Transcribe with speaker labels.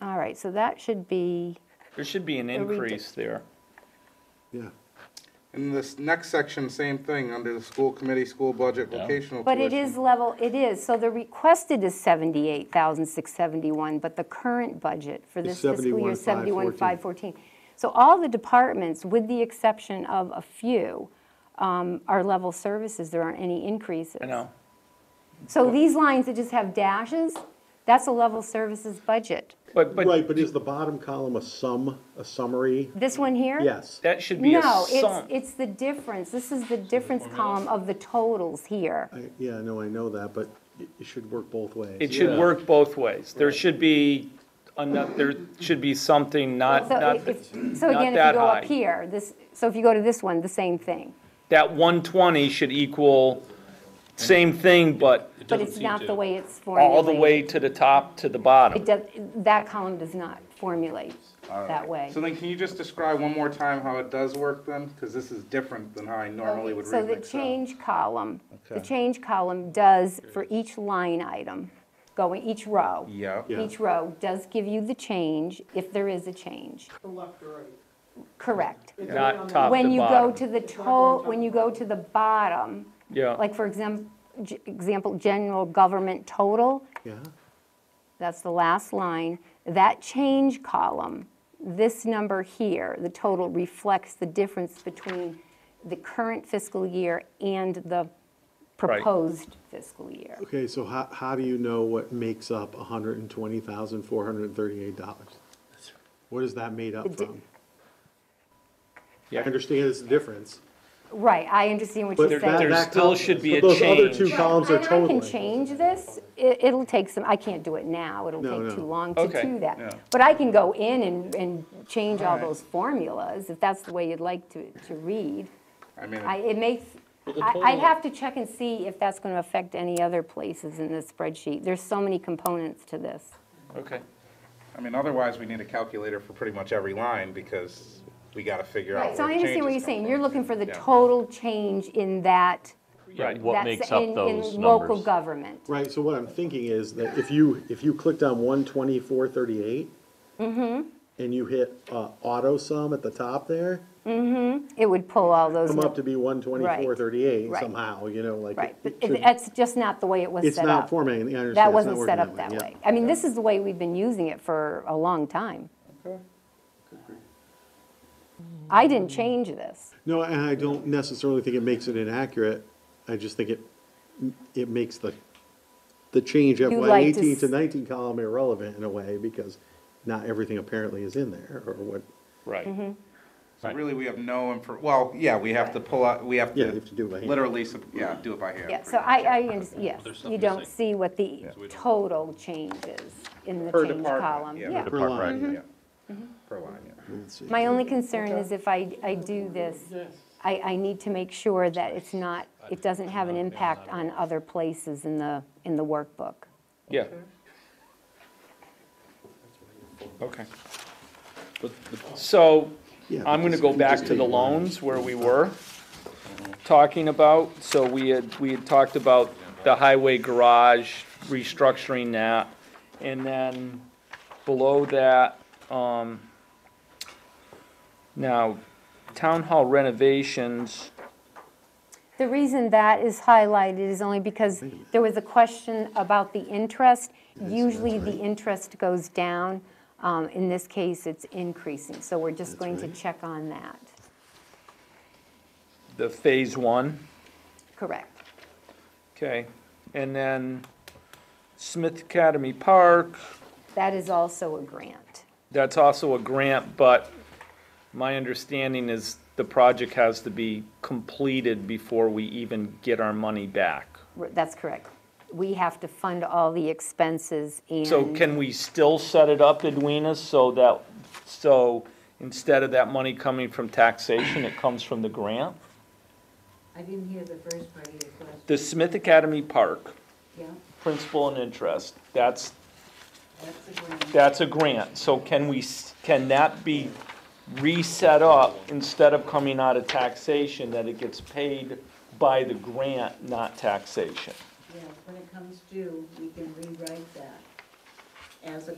Speaker 1: right, so that should be,
Speaker 2: There should be an
Speaker 1: A redu-
Speaker 2: increase there.
Speaker 3: yeah.
Speaker 4: In this next section, same thing, under the school committee, school budget,
Speaker 2: Yeah.
Speaker 4: vocational
Speaker 1: but
Speaker 4: tuition.
Speaker 1: it is level, it is, so the requested is 78,671, but the current budget for this
Speaker 3: Is
Speaker 1: fiscal year is
Speaker 3: 71,514.
Speaker 1: 71,514. So all the departments, with the exception of a few, um, are level services, there aren't any increases.
Speaker 2: I know.
Speaker 1: So these lines that just have dashes, that's a level services budget.
Speaker 2: But, but
Speaker 3: Right, but is the bottom column a sum, a summary?
Speaker 1: This one here?
Speaker 3: Yes.
Speaker 2: that should be a
Speaker 1: No,
Speaker 2: sum.
Speaker 1: it's, it's the difference, this is the difference column of the totals here.
Speaker 3: I- Yeah, no, I know that, but it it should work both ways.
Speaker 2: It should work both ways. There should be, ano- there should be something not,
Speaker 1: So
Speaker 2: not,
Speaker 1: if- So
Speaker 2: not
Speaker 1: again, if you
Speaker 2: that
Speaker 1: go up
Speaker 2: high.
Speaker 1: here, this, so if you go to this one, the same thing,
Speaker 2: that 120 should equal same thing, but
Speaker 1: but it's not the way it's formulated.
Speaker 2: all the way to the top, to the
Speaker 1: It
Speaker 2: bottom.
Speaker 1: does, that column does not formulate that way.
Speaker 4: So then can you just describe one more time how it does work then? Because this is different than how I normally would
Speaker 1: So
Speaker 4: read
Speaker 1: the
Speaker 4: an Excel.
Speaker 1: change column, the
Speaker 4: Okay.
Speaker 1: change column does for each line item, going, each row.
Speaker 4: Yeah.
Speaker 3: Yeah.
Speaker 1: Each row does give you the change, if there is a change,
Speaker 5: from left to right.
Speaker 1: correct.
Speaker 5: It's
Speaker 2: Not
Speaker 5: only on the-
Speaker 2: top.
Speaker 1: When
Speaker 2: to
Speaker 1: you go
Speaker 2: bottom.
Speaker 1: to the to, when you go to the bottom,
Speaker 2: Yeah.
Speaker 1: like for example, example, general government total,
Speaker 3: Yeah,
Speaker 1: that's the last line, that change column, this number here, the total reflects the difference between the current fiscal year and the proposed fiscal year.
Speaker 3: okay, so how, how do you know what makes up hundred and twenty thousand, four hundred and thirty-eight dollars? What is that made up
Speaker 1: The di-
Speaker 3: from? I
Speaker 2: Yeah.
Speaker 3: understand it's a difference,
Speaker 1: Right, I understand what
Speaker 3: but
Speaker 1: you're
Speaker 3: that,
Speaker 1: saying.
Speaker 3: that
Speaker 2: There still
Speaker 3: column-
Speaker 2: should be
Speaker 3: but
Speaker 2: a
Speaker 3: Those other two
Speaker 2: change.
Speaker 3: columns are
Speaker 1: And I
Speaker 3: totaling.
Speaker 1: can change this, it, it'll take some, I can't do it now, it'll
Speaker 3: No,
Speaker 1: take
Speaker 3: no.
Speaker 1: too long to
Speaker 2: Okay,
Speaker 1: do
Speaker 2: yeah.
Speaker 1: that. But I can go in and, and change all
Speaker 2: Alright.
Speaker 1: those formulas, if that's the way you'd like to, to read.
Speaker 4: I mean,
Speaker 1: I, it makes, I, I'd have to check and see if that's gonna affect any other places in the spreadsheet. There's so many components to this.
Speaker 2: Okay.
Speaker 4: I mean, otherwise, we need a calculator for pretty much every line because we got to figure out
Speaker 1: Right, so
Speaker 4: where
Speaker 1: I
Speaker 4: the
Speaker 1: understand what you're
Speaker 4: changes come
Speaker 1: saying,
Speaker 4: from.
Speaker 1: you're looking for the
Speaker 4: Yeah.
Speaker 1: total change in that,
Speaker 2: Right.
Speaker 6: What
Speaker 1: that's
Speaker 6: makes up
Speaker 1: in,
Speaker 6: those
Speaker 1: in local
Speaker 6: numbers?
Speaker 1: government.
Speaker 3: Right, so what I'm thinking is that if you, if you clicked on one twenty-four thirty-eight.
Speaker 1: Mm-hmm.
Speaker 3: And you hit, uh, auto sum at the top there,
Speaker 1: It would pull all those,
Speaker 3: come up to be one twenty-four thirty-eight
Speaker 1: Right.
Speaker 3: somehow, you know, like.
Speaker 1: right,
Speaker 3: it
Speaker 1: but
Speaker 3: should-
Speaker 1: it- that's just not the way it was set up.
Speaker 3: It's not formatting, I understand.
Speaker 1: That
Speaker 3: it's
Speaker 1: wasn't
Speaker 3: not
Speaker 1: set up
Speaker 3: working
Speaker 1: that way.
Speaker 3: yeah.
Speaker 1: I mean, this is the way we've been using it for a long time. I didn't change this.
Speaker 3: No, and I don't necessarily think it makes it inaccurate, I just think it, it makes the, the change at
Speaker 1: You
Speaker 3: one
Speaker 1: like to
Speaker 3: eighteen to
Speaker 1: s-
Speaker 3: nineteen column irrelevant in a way, because not everything apparently is in there, or what,
Speaker 1: Mm-hmm.
Speaker 2: Right.
Speaker 4: So really, we have no, infor- well, yeah, we have to pull out, we have to.
Speaker 3: Yeah, you have to do it by hand.
Speaker 4: Literally, sup- yeah, do it by hand.
Speaker 1: Yeah, so
Speaker 4: pretty
Speaker 1: I,
Speaker 4: much.
Speaker 1: I, under- yes, you don't see what the total change is in the
Speaker 4: Per
Speaker 1: change
Speaker 4: department,
Speaker 1: column.
Speaker 4: yeah,
Speaker 1: Yeah.
Speaker 4: per
Speaker 3: per line.
Speaker 4: Yeah.
Speaker 1: Mm-hmm.
Speaker 4: Per line, yeah.
Speaker 3: Let's see.
Speaker 1: My only concern is if I, I do this, I, I need to make sure that it's not, it doesn't have an impact on other places in the, in the workbook.
Speaker 2: Yeah. Okay. So
Speaker 3: Yeah,
Speaker 2: I'm going to
Speaker 3: just-
Speaker 2: go
Speaker 3: just
Speaker 2: back to
Speaker 3: take
Speaker 2: the
Speaker 3: one.
Speaker 2: loans where we were talking about. So we had, we had talked about the highway garage, restructuring that. And then below that, um, now, town hall renovations,
Speaker 1: The reason that is highlighted is only because there was a question about the interest. Usually, the interest goes down. Um, In this case, it's increasing, so we're just going to
Speaker 3: right.
Speaker 1: check on that.
Speaker 2: the phase one.
Speaker 1: Correct.
Speaker 2: Okay, and then Smith Academy Park,
Speaker 1: That is also a grant.
Speaker 2: that's also a grant, but my understanding is the project has to be completed before we even get our money back.
Speaker 1: R- That's correct. We have to fund all the expenses and.
Speaker 2: So can we still set it up, Edwina, so that, so instead of that money coming from taxation, it comes from the grant?
Speaker 7: I didn't hear the first part of your question.
Speaker 2: The Smith Academy Park,
Speaker 7: Yeah,
Speaker 2: principal and interest, that's
Speaker 7: that's the grant.
Speaker 2: That's a grant, so can we, s- can that be reset up instead of coming out of taxation, that it gets paid by the grant, not taxation?
Speaker 7: Yeah, when it comes due, we can rewrite that as a